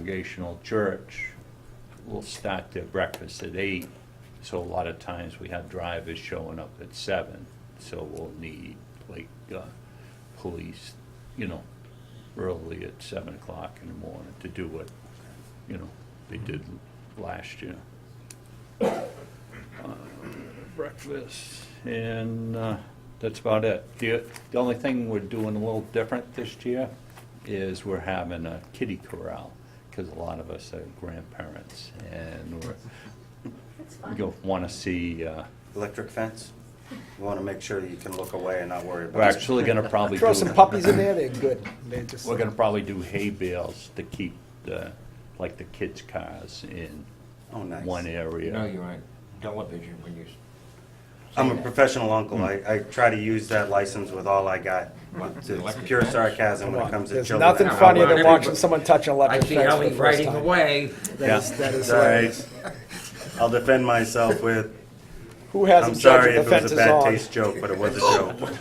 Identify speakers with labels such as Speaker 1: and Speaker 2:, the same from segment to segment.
Speaker 1: Congregational Church will start their breakfast at eight, so a lot of times we have drivers showing up at seven, so we'll need like, uh, police, you know, early at seven o'clock in the morning to do what, you know, they did last year. Uh, Breakfast, and, uh, that's about it. The, the only thing we're doing a little different this year is we're having a kitty corral, because a lot of us are grandparents, and we're,
Speaker 2: It's
Speaker 1: we
Speaker 2: fine.
Speaker 1: go wanna see, uh,
Speaker 3: Electric fence? You want to make sure that you can look away and not worry about it.
Speaker 1: we're actually gonna probably
Speaker 4: Throw
Speaker 1: do-
Speaker 4: some puppies in there, they're good. They're just,
Speaker 1: We're gonna probably do hay bales to keep the, like the kids' cars in
Speaker 3: Oh, nice.
Speaker 1: one area.
Speaker 5: No, you're on television when you. s-
Speaker 3: I'm
Speaker 5: say
Speaker 3: a
Speaker 5: that.
Speaker 3: professional uncle. I, I try to use that license with all I got. It's
Speaker 5: Electric
Speaker 3: pure
Speaker 5: fence?
Speaker 3: sarcasm when it comes to
Speaker 4: there's
Speaker 3: children.
Speaker 4: nothing
Speaker 5: No,
Speaker 4: funnier than
Speaker 5: everybody-
Speaker 4: watching someone touch an
Speaker 5: I
Speaker 4: electric
Speaker 5: see
Speaker 4: fence
Speaker 5: how
Speaker 4: for
Speaker 5: he's
Speaker 4: the first
Speaker 5: riding
Speaker 4: time.
Speaker 5: away.
Speaker 4: That is, that is
Speaker 3: Sorry.
Speaker 4: hilarious.
Speaker 3: I'll defend myself with,
Speaker 4: Who
Speaker 3: I'm
Speaker 4: hasn't judged
Speaker 3: sorry
Speaker 4: if
Speaker 3: if
Speaker 4: the
Speaker 3: it
Speaker 4: fence
Speaker 3: was a
Speaker 4: is
Speaker 3: bad
Speaker 4: on?
Speaker 3: taste joke, but it was a
Speaker 5: Oh.
Speaker 3: joke.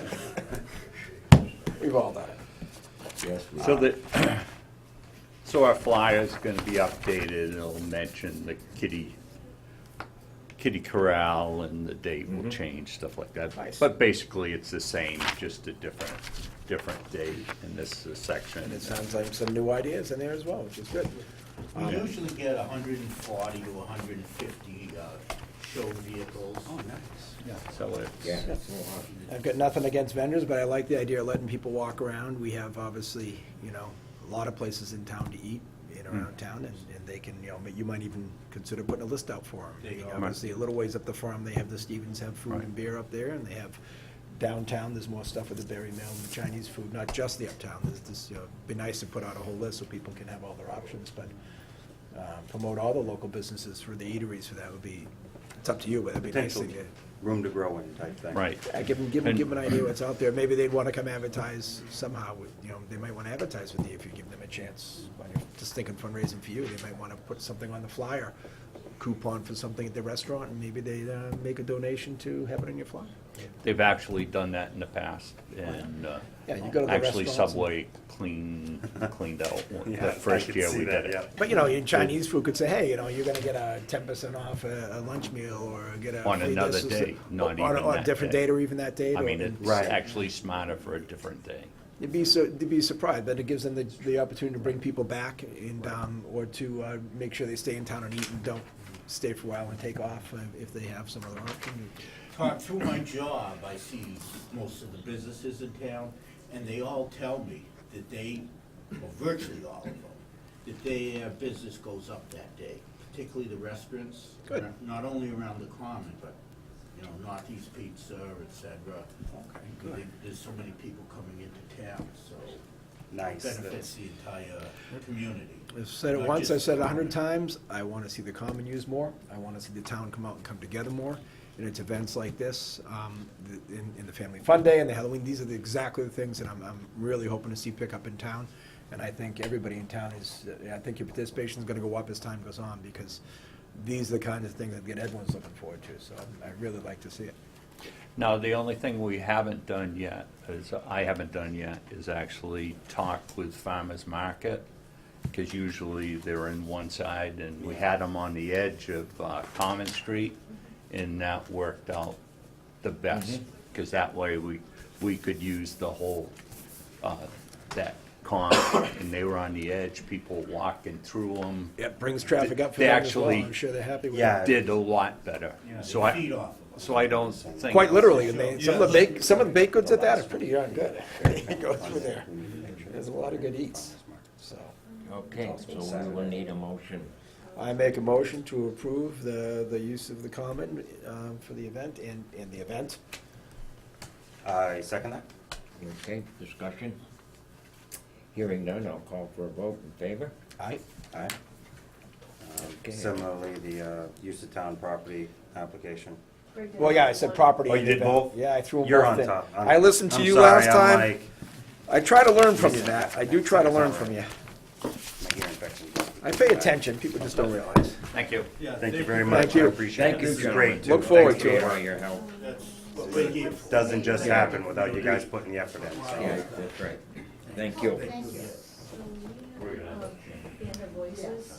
Speaker 4: We've all done it.
Speaker 5: Yes, we
Speaker 1: So
Speaker 5: are.
Speaker 1: the, so our flyer's gonna be updated, it'll mention the kitty, kitty corral and the date will change, stuff like that.
Speaker 4: Nice.
Speaker 1: But basically, it's the same, just a different, different date, and this is a section.
Speaker 4: And it sounds like some new ideas in there as well, which is good.
Speaker 6: We usually get hundred and forty to hundred and fifty, uh, show vehicles. Oh, nice.
Speaker 1: So it's.
Speaker 5: Yeah, that's a lot.
Speaker 4: I've got nothing against vendors, but I like the idea of letting people walk around. We have obviously, you know, a lot of places in town to eat, in and around town, and, and they can, you know, you might even consider putting a list out for
Speaker 6: There you
Speaker 4: them.
Speaker 6: go.
Speaker 4: Obviously, a little ways up the farm, they have the Stevens have food and beer up there, and they have downtown, there's more stuff with the Berry Mill and the Chinese food, not just the uptown. There's this, you know, it'd be nice to put out a whole list so people can have all their options, but, um, promote all the local businesses for the eateries, so that would be, it's up to you, but that'd be nice
Speaker 3: Potential
Speaker 4: thing to.
Speaker 3: room to grow in type thing.
Speaker 1: Right.
Speaker 4: I give them, give them,
Speaker 1: And-
Speaker 4: give them an idea what's out there. Maybe they'd want to come advertise somehow with, you know, they might want to advertise with you if you give them a chance. When you're Just thinking fundraising for you, they might want to put something on the flyer, coupon for something at the restaurant, and maybe they uh, make a donation to have it on your flyer.
Speaker 1: They've actually done that in the past, and, uh,
Speaker 4: Yeah, you go to the
Speaker 1: actually
Speaker 4: restaurants and-
Speaker 1: Subway cleaned, cleaned out one-
Speaker 3: Yeah, I
Speaker 1: the first
Speaker 3: could
Speaker 1: year
Speaker 3: see
Speaker 1: we
Speaker 3: that,
Speaker 1: did it.
Speaker 3: yeah.
Speaker 4: But, you know, in Chinese food could say, hey, you know, you're going to get a ten percent off a a lunch meal or get a.
Speaker 1: On
Speaker 4: free this
Speaker 1: another
Speaker 4: or so-
Speaker 1: day, not
Speaker 4: on-
Speaker 1: even
Speaker 4: On a
Speaker 1: that
Speaker 4: different
Speaker 1: day.
Speaker 4: date or even that date.
Speaker 1: I
Speaker 4: or-
Speaker 1: mean, it's
Speaker 3: Right.
Speaker 1: actually smarter for a different day.
Speaker 4: You'd be so, you'd be surprised, but it gives them the, the opportunity to bring people back and, um, or to, uh, make sure they stay in town and eat and don't stay for a while and take off uh, if they have some other option.
Speaker 6: Todd, through my job, I see most of the businesses in town, and they all tell me that they, well, virtually all of them, that their business goes up that day, particularly the restaurants.
Speaker 4: Good.
Speaker 6: Not only around the common, but, you know, Northeast Pizza, et cetera. Okay, good. There's so many people coming into town, so it
Speaker 3: Nice.
Speaker 6: benefits the entire community.
Speaker 4: I've said it
Speaker 6: Not
Speaker 4: once,
Speaker 6: just
Speaker 4: I've said it a
Speaker 6: the
Speaker 4: hundred
Speaker 6: common.
Speaker 4: times, I wanna see the common used more, I wanna see the town come out and come together more. And it's events like this, um, the- in, in the Family Fun Day and the Halloween, these are the, exactly the things that I'm, I'm really hoping to see pick up in town. And I think everybody in town is, I think your participation is gonna go up as time goes on, because these are the kind of things that get everyone's looking forward to, so I'm- I really like to see it.
Speaker 1: Now, the only thing we haven't done yet, is, I haven't done yet, is actually talk with farmer's market, because usually they're in one side, and we had them on the edge of uh, Common Street, and that worked out the best,
Speaker 6: Mm-hmm.
Speaker 1: because that way we, we could use the whole, uh, that common, and they were on the edge, people walking through them,
Speaker 4: It brings traffic up for
Speaker 1: They
Speaker 4: them as well,
Speaker 1: actually-
Speaker 4: I'm sure they're happy with it.
Speaker 3: Yeah.
Speaker 1: did a lot better.
Speaker 6: Yeah,
Speaker 1: So
Speaker 6: they feed
Speaker 1: I,
Speaker 6: off of us.
Speaker 1: so I don't think.
Speaker 4: Quite literally, and they, some of the
Speaker 6: Yeah.
Speaker 4: bake, some of the baked goods at that are pretty darn good. Go through there. There's a lot of good eats, so.
Speaker 5: Okay, so we will need a motion.
Speaker 4: I make a motion to approve the, the use of the common, um, for the event and, and the event.
Speaker 3: I second that.
Speaker 5: Okay, discussion? Hearing none, I'll call for a vote in favor.
Speaker 4: Aye.
Speaker 3: Aye. Um,
Speaker 5: Okay.
Speaker 3: Similarly, the uh, use of town property application.
Speaker 2: We're good.
Speaker 4: Well, yeah, I said property.
Speaker 3: Oh, you
Speaker 4: and the
Speaker 3: did
Speaker 4: event.
Speaker 3: both?
Speaker 4: Yeah, I threw them both in.
Speaker 3: You're on top. I'm-
Speaker 4: I listened to
Speaker 3: I'm
Speaker 4: you
Speaker 3: sorry,
Speaker 4: last
Speaker 3: I'm
Speaker 4: time.
Speaker 3: like-
Speaker 4: I try to learn from you, Matt. I do try to learn from you.
Speaker 3: my ear infection's
Speaker 4: I pay attention, people just don't realize.
Speaker 1: Thank you.
Speaker 6: Yeah,
Speaker 3: Thank
Speaker 6: they-
Speaker 3: you very much.
Speaker 4: you.
Speaker 3: I appreciate it.
Speaker 5: Thank you,
Speaker 3: This is
Speaker 5: gentlemen.
Speaker 3: great, too.
Speaker 4: Look forward
Speaker 3: Thanks
Speaker 4: to it.
Speaker 3: for your
Speaker 5: For
Speaker 3: work.
Speaker 5: your help.
Speaker 6: That's what we're here for.
Speaker 3: Doesn't just happen without you guys putting the effort in, so.
Speaker 5: Yeah, that's right. Thank you.
Speaker 2: Thank you. So we have, um, Banner Voice places.